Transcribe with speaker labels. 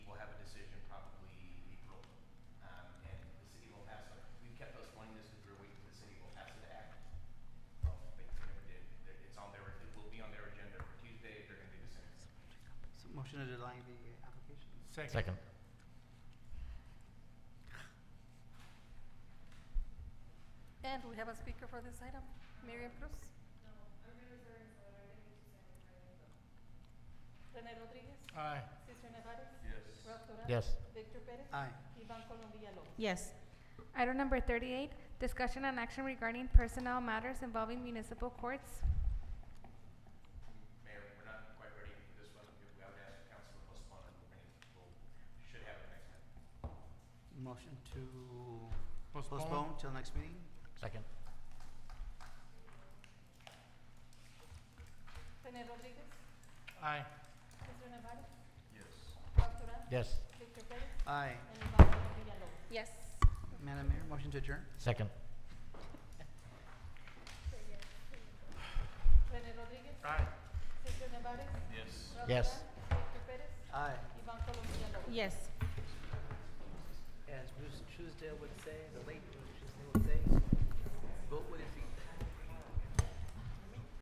Speaker 1: Second.
Speaker 2: Second.
Speaker 3: And we have a speaker for this item, Miriam Cruz. René Rodríguez,
Speaker 1: Aye.
Speaker 3: Cesar Nevares,
Speaker 4: Yes.
Speaker 3: Ralph Durant.
Speaker 2: Yes.
Speaker 3: Victor Pérez.
Speaker 5: Aye.
Speaker 3: Iván Colom Villalobos.
Speaker 6: Yes.
Speaker 7: Item number 38, discussion and action regarding personnel matters involving municipal courts.
Speaker 4: Mayor, we're not quite ready for this one. We would ask council to postpone it. We're gonna- we'll- Should have it next time.
Speaker 5: Motion to
Speaker 1: Postpone.
Speaker 5: postpone till next meeting?
Speaker 2: Second.
Speaker 3: René Rodríguez,
Speaker 1: Aye.
Speaker 3: Cesar Nevares,
Speaker 4: Yes.
Speaker 3: Ralph Durant,
Speaker 2: Yes.
Speaker 3: Victor Pérez,
Speaker 5: Aye.
Speaker 3: and Iván Colom Villalobos.
Speaker 6: Yes.
Speaker 5: Madam Mayor, motion to adjourn?
Speaker 2: Second.
Speaker 3: René Rodríguez,
Speaker 1: Aye.
Speaker 3: Cesar Nevares,
Speaker 4: Yes.
Speaker 3: Ralph
Speaker 2: Yes.
Speaker 3: Durant, Victor Pérez,
Speaker 5: Aye.
Speaker 3: Iván Colom Villalobos.
Speaker 6: Yes.
Speaker 5: As Bruce Truesdale would say, the late Bruce Truesdale would say, vote with your feet.